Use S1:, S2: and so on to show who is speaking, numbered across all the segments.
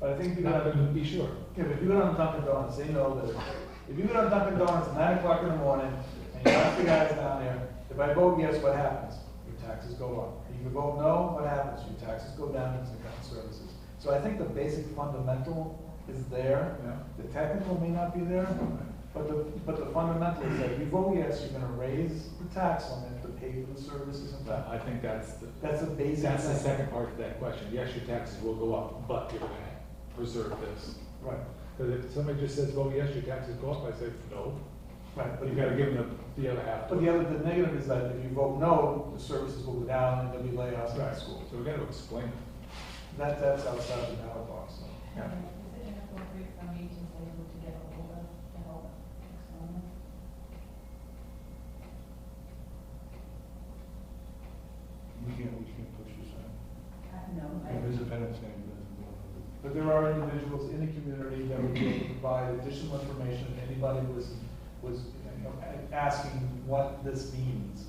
S1: But I think if you go
S2: Not
S1: down,
S2: gonna be sure.
S1: yeah, but if you go down to Dunkin' Donuts, they know that if you go down to Dunkin' Donuts at nine o'clock in the morning and you ask the guys down there, if I vote yes, what happens? Your taxes go up. If you vote no, what happens? Your taxes go down into account services. So I think the basic fundamental is there.
S2: Yeah.
S1: The technical may not be there, but the, but the fundamental is that if you vote yes, you're gonna raise the tax limit to pay for the services and that.
S2: I think that's the,
S1: That's a basic.
S2: that's the
S1: thing.
S2: second part of that question. Yes, your taxes will go up, but you're gonna preserve this.
S1: Right,
S2: Because if somebody just says, well, yes, your taxes go up, I say, no,
S1: right.
S2: but you gotta give them the, the other half.
S1: But the other, the negative is that if you vote no, the services will go down and there'll be layoffs in the
S2: Right,
S1: school.
S2: so we gotta explain it.
S1: That, that's outside the ballot box, so.
S2: Yeah.
S3: Is it inappropriate for me to be able to get hold of to help someone?
S4: We can't, we can't push this out.
S3: No, I,
S4: If it's a better thing, it doesn't go.
S1: But there are individuals in the community that would be able to provide additional information if anybody was, was, you know, a- asking what this means.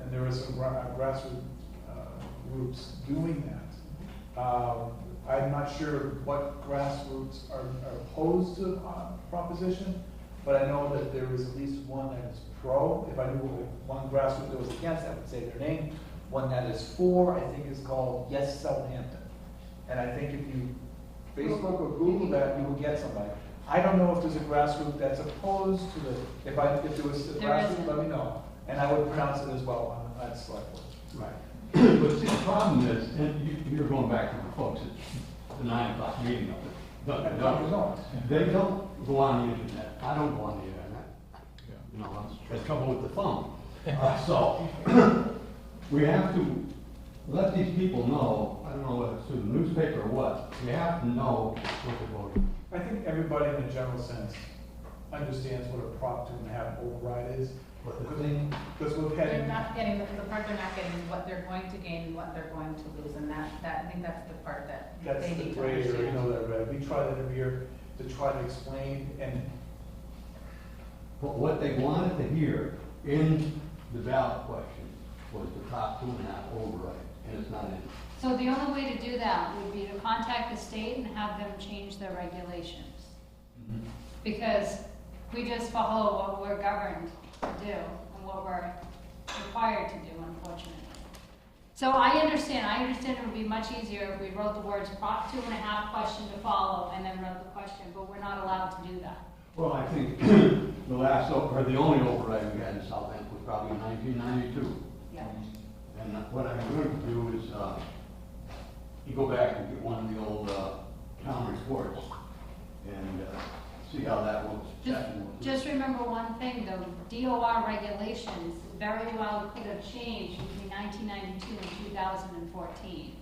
S1: And there are some gra- uh, grassroots, uh, groups doing that. Um, I'm not sure what grassroots are, are opposed to uh, proposition, but I know that there is at least one that is pro. If I knew one grassroots that was against, I would say their name. One that is for, I think is called Yes Southampton. And I think if you Facebook or Google that, you will get somebody. I don't know if there's a grassroots that's opposed to the, if I, if there was a
S3: There
S1: grassroots,
S3: isn't.
S1: let me know. And I would pronounce it as well on that select board.
S5: Right. But see, the problem is, and you- you're going back to the folks at the nine o'clock meeting of the Dunkin'
S1: And Dunkin'
S5: Donuts.
S1: Donuts.
S5: They don't go on the internet. I don't go on the internet.
S2: Yeah.
S5: You know, I have trouble with the phone. Uh, So we have to let these people know, I don't know whether it's through the newspaper or what, we have to know what they're voting.
S1: I think everybody in a general sense understands what a Prop two and a half override is.
S5: What the thing,
S1: Because we've
S3: they're
S1: had,
S3: not getting, the the part they're not getting, is what they're going to gain, and what they're going to lose, and that, that, I think that's the part that
S1: that's
S3: they
S1: the
S3: need to
S1: gray area, you
S3: understand.
S1: know, that, right? we try that every year to try to explain and
S5: what- what they wanted to hear in the ballot question was the top two and a half override, and it's not in.
S6: So the only way to do that would be to contact the state and have them change their regulations.
S5: Mm-hmm.
S6: Because we just follow what we're governed to do and what we're required to do, unfortunately. So I understand, I understand it would be much easier if we wrote the words prop two and a half question to follow and then wrote the question, but we're not allowed to do that.
S5: Well, I think the last, o- or the only override we had in Southampton was probably in 1992.
S3: Yeah.
S5: And what I'm going to do is, uh, you go back and get one of the old uh, town reports and uh, see how that looks.
S6: Just,
S5: that looks.
S6: just remember one thing, though, DOR regulations very well could have changed between nineteen ninety-two and two thousand and fourteen.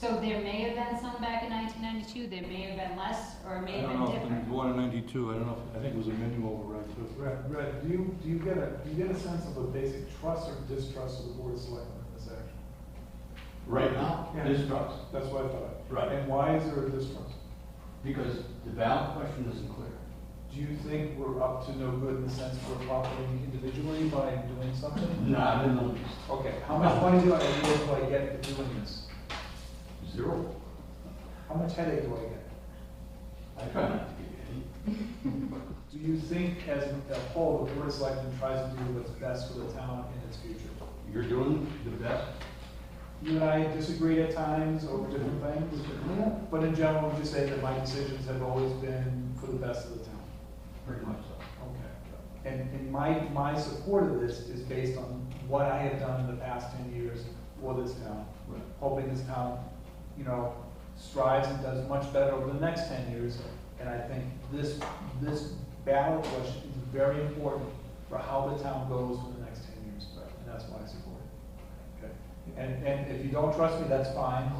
S6: So there may have been some back in nineteen ninety-two, there may have been less, or it may
S4: I
S6: have
S4: don't know,
S6: been
S4: if
S6: different.
S4: in one in ninety-two, I don't know, if- I think it was a menu override too.
S1: Right, right. do you, do you get a, do you get a sense of the basic trust or distrust of the board of selectmen in this action?
S5: Right now,
S1: Yeah.
S5: this trucks,
S1: That's what I thought.
S5: Right.
S1: And why is there a distrust?
S5: because the ballot question isn't clear.
S1: Do you think we're up to no good in the sense we're profiting individually by doing something?
S5: Not in the least.
S1: Okay, how much money do I, do I get for doing this?
S5: Zero.
S1: How much headache do I get?
S5: I try not to give you any.
S1: Do you think as a whole, the board of selectmen tries to do what's best for the town in its future?
S5: You're doing the best
S1: You and I disagree at times over different things, but in general, would you say that my decisions have always been for the best of the town?
S5: Pretty much so.
S1: Okay. And, and my, my support of this is based on what I have done in the past ten years for this town.
S5: Right.
S1: Hoping this town, you know, strives and does much better over the next ten years. And I think this, this ballot question is very important for how the town goes for the next ten years. And that's why I support it. Okay. And, and if you don't trust me, that's fine.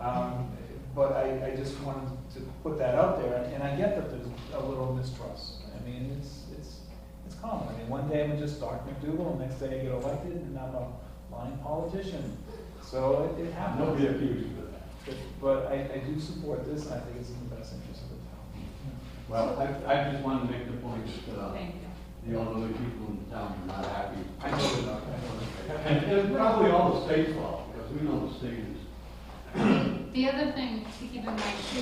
S1: Um, but I, I just wanted to put that out there, and I get that there's a little mistrust. I mean, it's, it's, it's common. I mean, one day I'm just Dr. McDougal, and next day I get elected, and I'm a lying politician. So it, it
S5: Nobody
S1: happens.
S5: accused you of that.
S1: But- But I, I do support this, and I think it's in the best interest of the town.
S5: Well, I, I just wanted to make the point that, uh,
S3: Thank you.
S5: the elderly people in town are not happy.
S1: I know they're not, I know they're not.
S5: And it's probably all the state's fault, because we know the state is
S6: The other thing to keep in mind too